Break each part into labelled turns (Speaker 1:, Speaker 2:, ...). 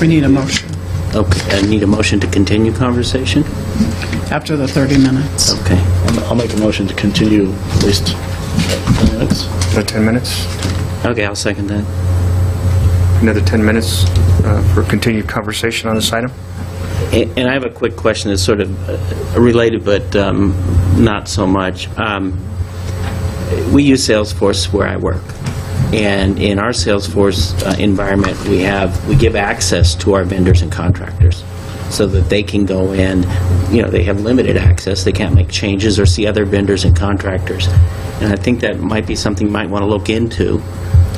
Speaker 1: We need a motion
Speaker 2: Okay, I need a motion to continue conversation?
Speaker 1: after the 30 minutes.
Speaker 2: Okay.
Speaker 3: I'll I'll make a motion to continue at least 10 minutes.
Speaker 4: Another 10 minutes?
Speaker 2: Okay, I'll second that.
Speaker 4: Another 10 minutes uh, for continued conversation on this item?
Speaker 2: A- And I have a quick question that's sort of uh, related, but um, not so much. Um, We use Salesforce where I work. And in our Salesforce uh, environment, we have, we give access to our vendors and contractors so that they can go in, you know, they have limited access, they can't make changes or see other vendors and contractors. And I think that might be something you might want to look into.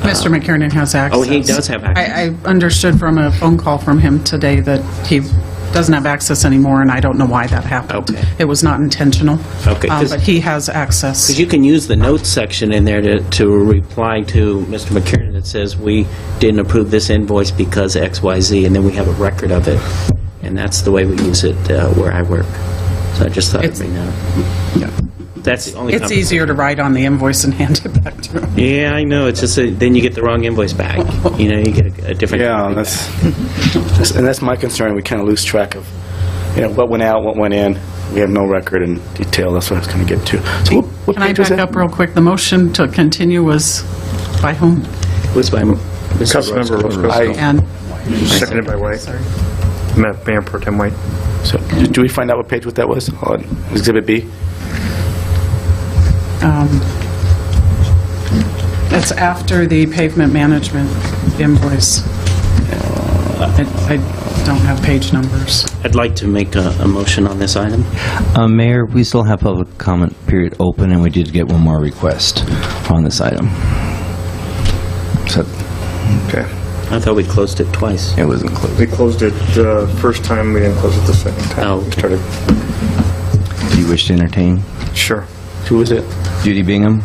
Speaker 1: Mr. McKiernan has access.
Speaker 2: Oh, he does have access.
Speaker 1: I, I understood from a phone call from him today that he doesn't have access anymore, and I don't know why that happened.
Speaker 2: Okay.
Speaker 1: It was not intentional.
Speaker 2: Okay,
Speaker 1: Uh,
Speaker 2: 'cause-
Speaker 1: But he has access.
Speaker 2: Because you can use the notes section in there to, to reply to Mr. McKiernan that says, "We didn't approve this invoice because X, Y, Z," and then we have a record of it. And that's the way we use it uh, where I work. So I just thought I'd
Speaker 1: It's-
Speaker 2: bring that up. That's the only...
Speaker 1: It's
Speaker 2: comp-
Speaker 1: easier to write on the invoice and hand it back to him.
Speaker 2: Yeah, I know, it's just, that then you get the wrong invoice back. You know, you get a- a different...
Speaker 3: Yeah, that's, that's- and that's my concern, we kind of lose track of, you know, what went out, what went in, we have no record in detail, that's what I was going to get to. So what- what
Speaker 1: Can I
Speaker 3: page was
Speaker 1: back
Speaker 3: that?
Speaker 1: up real quick? The motion to continue was by whom?
Speaker 2: Was by... Mr.
Speaker 4: Councilmember
Speaker 3: Roscoe.
Speaker 4: Roscoe.
Speaker 1: And,
Speaker 4: Seconded by White.
Speaker 1: sorry.
Speaker 4: Ma- Mayor Pro Tem White.
Speaker 3: So, do we find out what page what that was? On Exhibit B?
Speaker 1: It's after the pavement management invoice. I I don't have page numbers.
Speaker 2: I'd like to make a, a motion on this item.
Speaker 5: Uh, Mayor, we still have public comment period open, and we did get one more request on this item. So
Speaker 4: Okay.
Speaker 2: I thought we closed it twice.
Speaker 5: it was included.
Speaker 4: We closed it the first time, we didn't close it the second time.
Speaker 2: Oh,
Speaker 4: We
Speaker 2: okay.
Speaker 4: started-
Speaker 5: Do you wish to entertain?
Speaker 4: Sure.
Speaker 3: Who was it?
Speaker 5: Judy Bingham?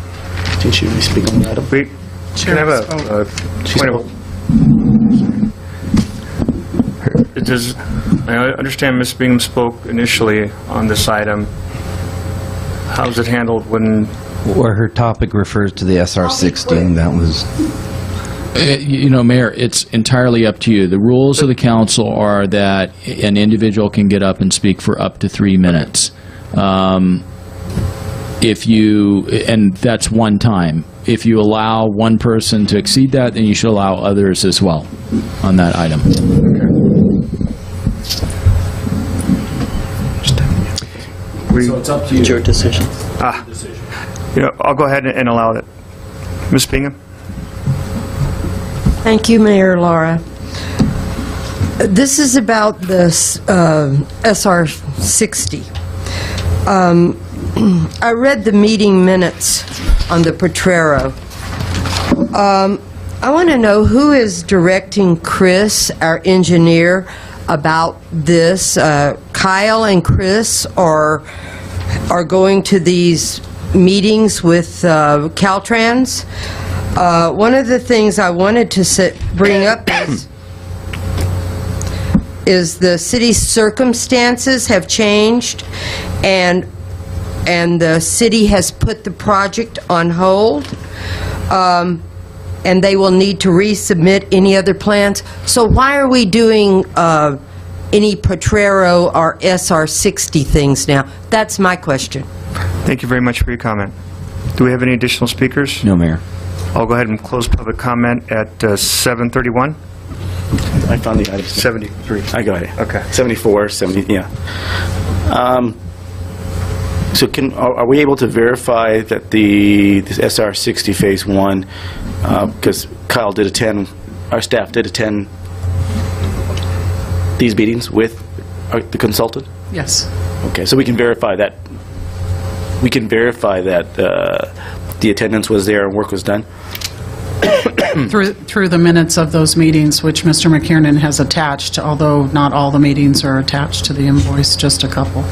Speaker 3: Did she speak on the item?
Speaker 4: We, can I
Speaker 1: Chair
Speaker 4: have
Speaker 1: spoke.
Speaker 4: a, a point of... It does, I understand Ms. Bingham spoke initially on this item. How's it handled when
Speaker 5: Or her topic refers to the SR-16, that was...
Speaker 6: Uh, You know, Mayor, it's entirely up to you. The rules of the council are that an individual can get up and speak for up to three minutes. Um, If you, and that's one time. If you allow one person to exceed that, then you should allow others as well on that item.
Speaker 4: we...
Speaker 2: It's your decision.
Speaker 4: You know, I'll go ahead and allow it. Ms. Bingham?
Speaker 7: Thank you, Mayor Laura. This is about the uh, SR 60. Um, I read the meeting minutes on the Potrero. Um, I want to know who is directing Chris, our engineer, about this. Uh, Kyle and Chris are are going to these meetings with uh, Caltrans. Uh, one of the things I wanted to sit, bring up is is the city's circumstances have changed and and the city has put the project on hold um, and they will need to resubmit any other plans so why are we doing uh, any potrero or sr60 things now that's my question
Speaker 4: Thank you very much for your comment. Do we have any additional speakers?
Speaker 5: No, Mayor.
Speaker 4: I'll go ahead and close public comment at uh, 7:31.
Speaker 3: I found the item.
Speaker 4: 73.
Speaker 3: I got it.
Speaker 4: Okay.
Speaker 3: 74, 70, yeah. Um, So can, are are we able to verify that the this SR-60 Phase 1, because Kyle did attend, our staff did attend these meetings with our- the consultant?
Speaker 1: Yes.
Speaker 3: Okay, so we can verify that, we can verify that uh, the attendance was there and work was done?
Speaker 1: Through through the minutes of those meetings, which Mr. McKiernan has attached, although not all the meetings are attached to the invoice, just a couple.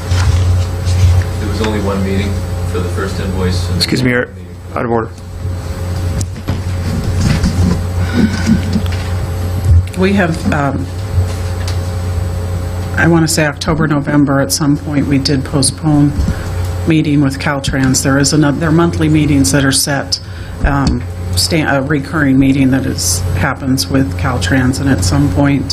Speaker 8: There was only one meeting for the first invoice. and-
Speaker 4: Excuse me, you're out of order.
Speaker 1: We have, um, I want to say October, November, at some point, we did postpone meeting with Caltrans. There is another, there are monthly meetings that are set, um, sta- a recurring meeting that is, happens with Caltrans, and at some point,